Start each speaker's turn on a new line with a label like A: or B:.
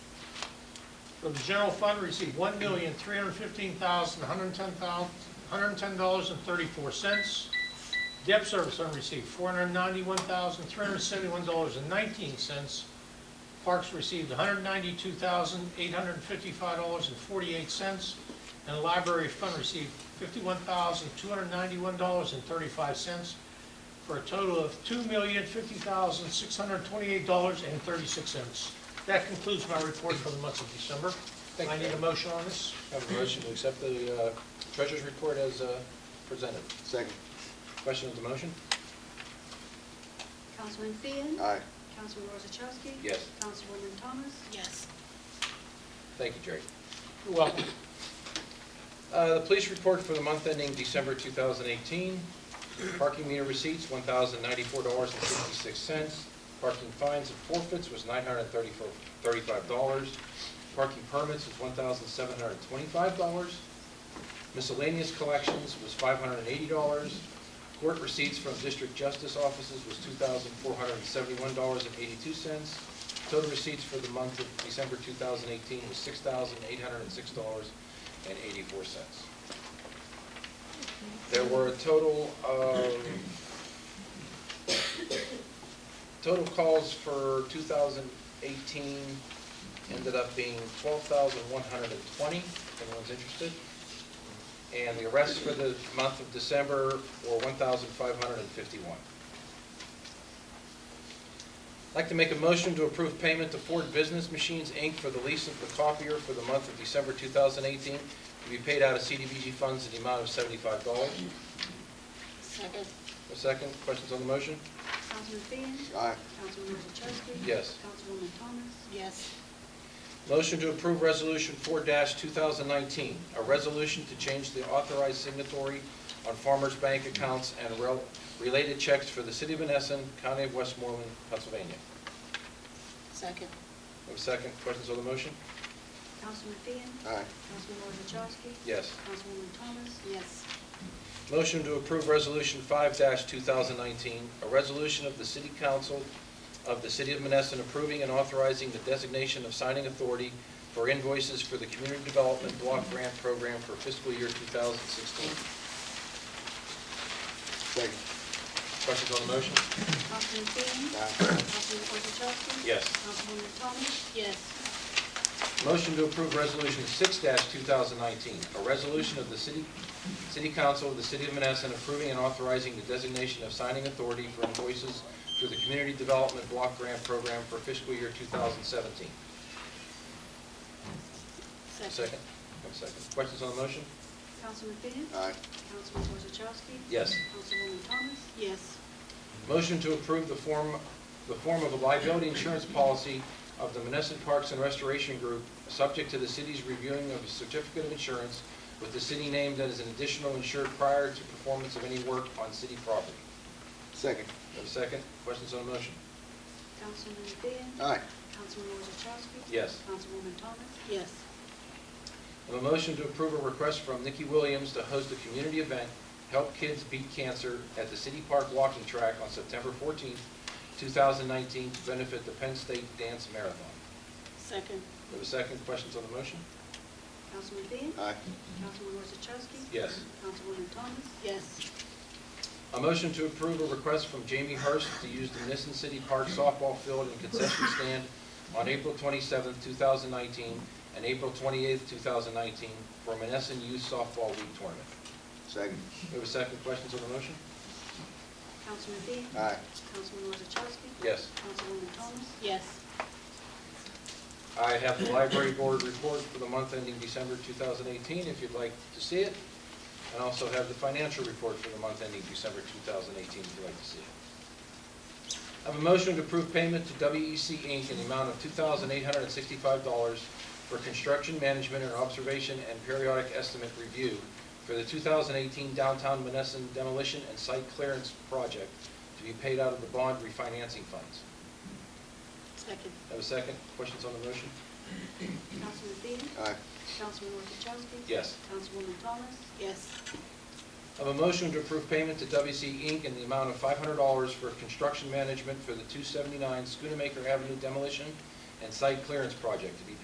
A: from the general fund received one million, three hundred fifteen thousand, one hundred ten thousand, one hundred ten dollars and thirty-four cents. Debt service unreceived, four hundred ninety-one thousand, three hundred seventy-one dollars and nineteen cents. Parks received one hundred ninety-two thousand, eight hundred fifty-five dollars and forty-eight cents. And the library fund received fifty-one thousand, two hundred ninety-one dollars and thirty-five cents for a total of two million, fifty thousand, six hundred twenty-eight dollars and thirty-six cents. That concludes my report for the month of December.
B: Thank
A: I
B: you.
A: need a motion on this.
B: Have a motion to accept the uh, treasurer's report as uh, presented.
C: Second.
B: Question of the motion?
D: Councilman Fian.
C: Aye.
D: Councilman Rosachowski.
B: Yes.
D: Councilwoman Thomas.
E: yes,
B: Thank you, Jerry.
A: You're welcome.
B: Uh, The police report for the month ending December 2018, parking meter receipts, $1,094.66. Parking fines and forfeits was $935. Parking permits was $1,725. Miscellaneous collections was $580. Court receipts from district justice offices was $2,471.82. Total receipts for the month of December 2018 was $6,806.84. There were a total of, total calls for 2018 ended up being 12,120, if anyone's interested. And the arrests for the month of December were 1,551. I'd like to make a motion to approve payment to Ford Business Machines, Inc. for the lease of the copier for the month of December 2018 to be paid out of CDBG funds in the amount of $75.
E: second,
B: A second, questions on the motion?
D: Councilman Fian.
C: Aye.
D: Councilman Rosachowski.
B: Yes.
D: Councilwoman Thomas.
E: yes,
B: Motion to approve Resolution 4-2019, a resolution to change the authorized signatory on Farmers Bank accounts and rel- related checks for the city of Monessen, county of Westmoreland, Pennsylvania.
E: second,
B: Have a second, questions on the motion?
D: Councilman Fian.
C: Aye.
D: Councilman Rosachowski.
B: Yes.
D: Councilwoman Thomas.
E: yes,
B: Motion to approve Resolution 5-2019, a resolution of the City Council of the City of Monessen approving and authorizing the designation of signing authority for invoices for the Community Development Block Grant Program for fiscal year 2016.
C: Second.
B: Questions on the motion?
D: Councilman Fian.
C: Aye.
D: Councilman Rosachowski.
B: Yes.
D: Councilwoman Thomas.
E: yes,
B: Motion to approve Resolution 6-2019, a resolution of the City City Council of the City of Monessen approving and authorizing the designation of signing authority for invoices through the Community Development Block Grant Program for fiscal year 2017.
E: second,
B: Second? One second. Questions on the motion?
D: Councilman Fian.
C: Aye.
D: Councilman Rosachowski.
B: Yes.
D: Councilwoman Thomas.
E: yes,
B: Motion to approve the form, the form of a liability insurance policy of the Monessen Parks and Restoration Group, subject to the city's reviewing of a certificate of insurance with the city named as an additional insured prior to performance of any work on city property.
C: Second.
B: Have a second? Questions on the motion?
D: Councilman Fian.
C: Aye.
D: Councilman Rosachowski.
B: Yes.
D: Councilwoman Thomas.
E: yes,
B: I have a motion to approve a request from Nikki Williams to host a community event, Help Kids Beat Cancer, at the City Park Walking Track on September 14th, 2019, to benefit the Penn State Dance Marathon.
E: second,
B: Do I have a second? Questions on the motion?
D: Councilman Fian.
C: Aye.
D: Councilman Rosachowski.
B: Yes.
D: Councilwoman Thomas.
E: yes,
B: A motion to approve a request from Jamie Hurst to use the Nissen City Park softball field and concession stand on April 27th, 2019, and April 28th, 2019, for Monessen Youth Softball League Tournament.
C: Second.
B: Do I have a second? Questions on the motion?
D: Councilman Dean.
C: Aye.
D: Councilman Rosachowski.
B: Yes.
D: Councilwoman Thomas.
E: yes,
B: I have the library board report for the month ending December 2018, if you'd like to see it. And also have the financial report for the month ending December 2018, if you'd like to see it. I have a motion to approve payment to WEC Inc. in the amount of $2,865 for construction management and observation and periodic estimate review for the 2018 downtown Monessen demolition and site clearance project to be paid out of the bond refinancing funds.
E: second,
B: Have a second? Questions on the motion?
D: Councilman Dean.
C: Aye.
D: Councilman Rosachowski.
B: Yes.
D: Councilwoman Thomas.
E: yes,
B: Of a motion to approve payment to WC Inc. in the amount of $500 for construction management for the 279 Schoonamaker Avenue demolition and site clearance project to be